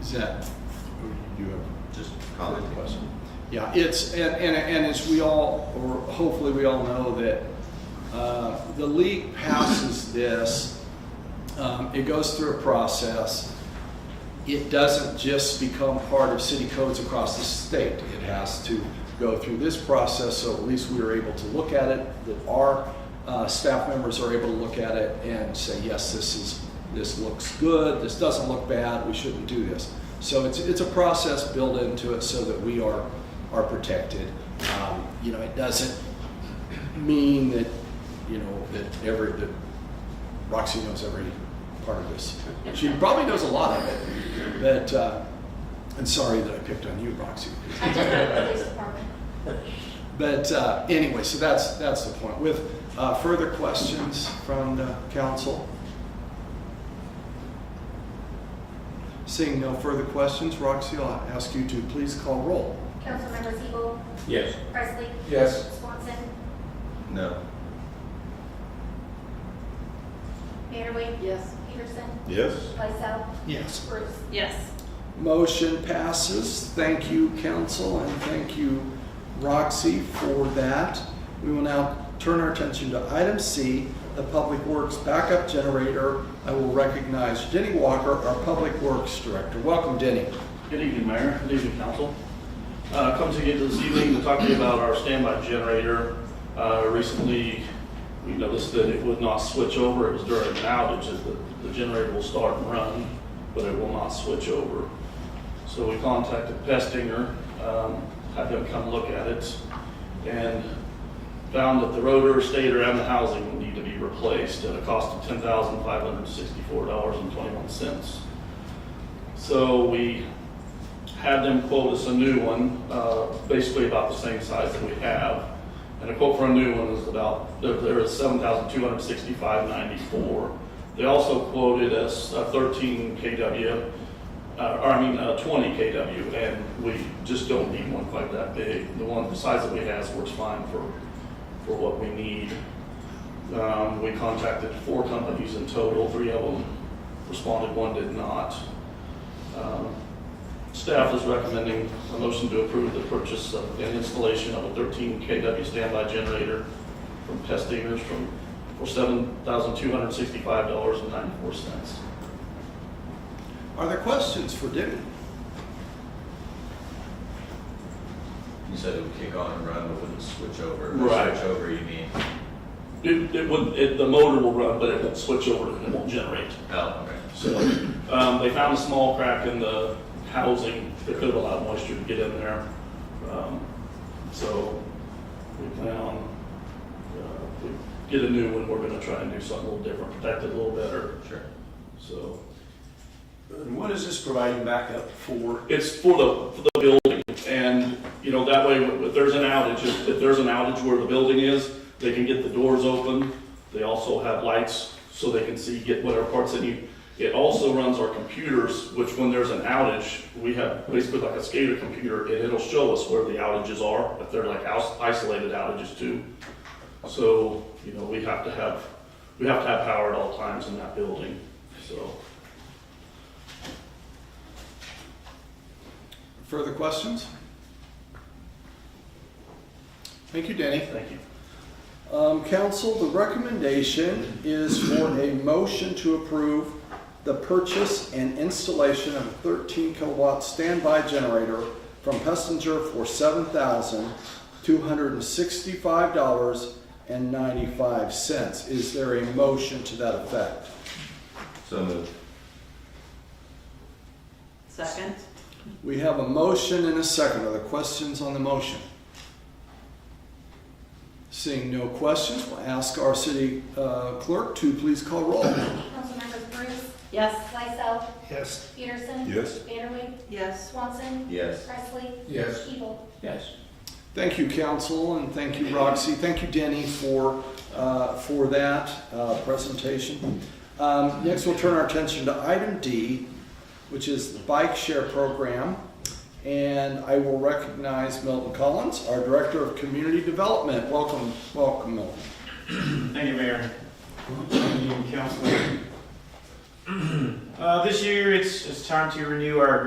Is that, You have Just commenting. question. yeah, it's, and, and, and as we all, or hopefully we all know that, uh, the league passes this, um, it goes through a process. It doesn't just become part of city codes across the state. It has to go through this process, so at least we are able to look at it, that our, uh, staff members are able to look at it and say, yes, this is, this looks good, this doesn't look bad, we shouldn't do this. So it's, it's a process built into it so that we are, are protected. Um, you know, it doesn't mean that, you know, that every, that Roxy knows every part of this. She probably knows a lot of it, but, uh, and sorry that I picked on you, Roxy. I just went to the police department. But, uh, anyway, so that's, that's the point. With, uh, further questions from the council? Seeing no further questions, Roxy, I'll ask you to please call roll. Councilmember Siebel, Yes. Presley. Yes. Swanson, No. Vanderway. Yes. Peterson, Yes? Lysell, Yes. Bruce. Yes. Motion passes. Thank you, council, and thank you, Roxy, for that. We will now turn our attention to item C, the Public Works Backup Generator. I will recognize Denny Walker, our Public Works Director. Welcome, Denny. Good evening, Mayor. Good evening, Council. Uh, Come to you this evening to talk to you about our standby generator. Uh, Recently, we noticed that it would not switch over. It was during an outage that the- the generator will start and run, but it will not switch over. So we contacted Pestinger, um, had them come look at it, and found that the rotor, stator, and the housing would need to be replaced at a cost of $10,564.21. So we had them quote us a new one, uh, basically about the same size that we have. And a quote for a new one is about, there- there is seven thousand two hundred sixty-five ninety-four. They also quoted us a thirteen KW, uh, or I mean, uh, twenty KW, and we just don't need one quite that big. The one, the size that we have works fine for, for what we need. Um, we contacted four companies in total, three of them responded, one did not. Um, Staff is recommending a motion to approve the purchase of- and installation of a 13 KW standby generator from Pestingers from, for $7,265.94. Are there questions for Denny? You said it would kick on and run, but wouldn't switch over. By Right. Switch over, you mean? It, it would, it, the motor will run, but it won't switch over and it won't generate. Oh, okay. So, um, they found a small crack in the housing that could have allowed moisture to get in there. Um, So, we plan on, uh, if we get a new one, we're gonna try and do something a little different, protect it a little better, Sure. so. And what is this providing backup for? It's for the, for the building, and, you know, that way, if there's an outage, if, if there's an outage where the building is, they can get the doors open. They also have lights, so they can see, get whatever parts they need. It also runs our computers, which when there's an outage, we have basically like a skater computer, and it'll show us where the outages are, if they're like aus- isolated outages too. So, you know, we have to have, we have to have power at all times in that building, so. Further questions? Thank you, Denny. Thank you. Um, council, the recommendation is for a motion to approve the purchase and installation of a thirteen kilowatt standby generator from Pessinger for seven thousand two hundred and sixty-five dollars and ninety-five cents. Is there a motion to that effect? So moved. Second? We have a motion and a second. Are there questions on the motion? Seeing no questions, we'll ask our city uh, clerk to please call roll. Councilmembers Bruce, Yes. Lysell, Yes. Peterson. Yes. Vanderway, Yes. Swanson, Yes. Presley. Yes. Siebel. Yes. Thank you, council, and thank you, Roxy. Thank you, Denny, for, uh, for that uh, presentation. Um, Next, we'll turn our attention to item D, which is the bike share program. And I will recognize Milton Collins, our Director of Community Development. Welcome, welcome, Milton. Thank you, Mayor. Thank you, Council. Uh, This year, it's, it's time to renew our agreement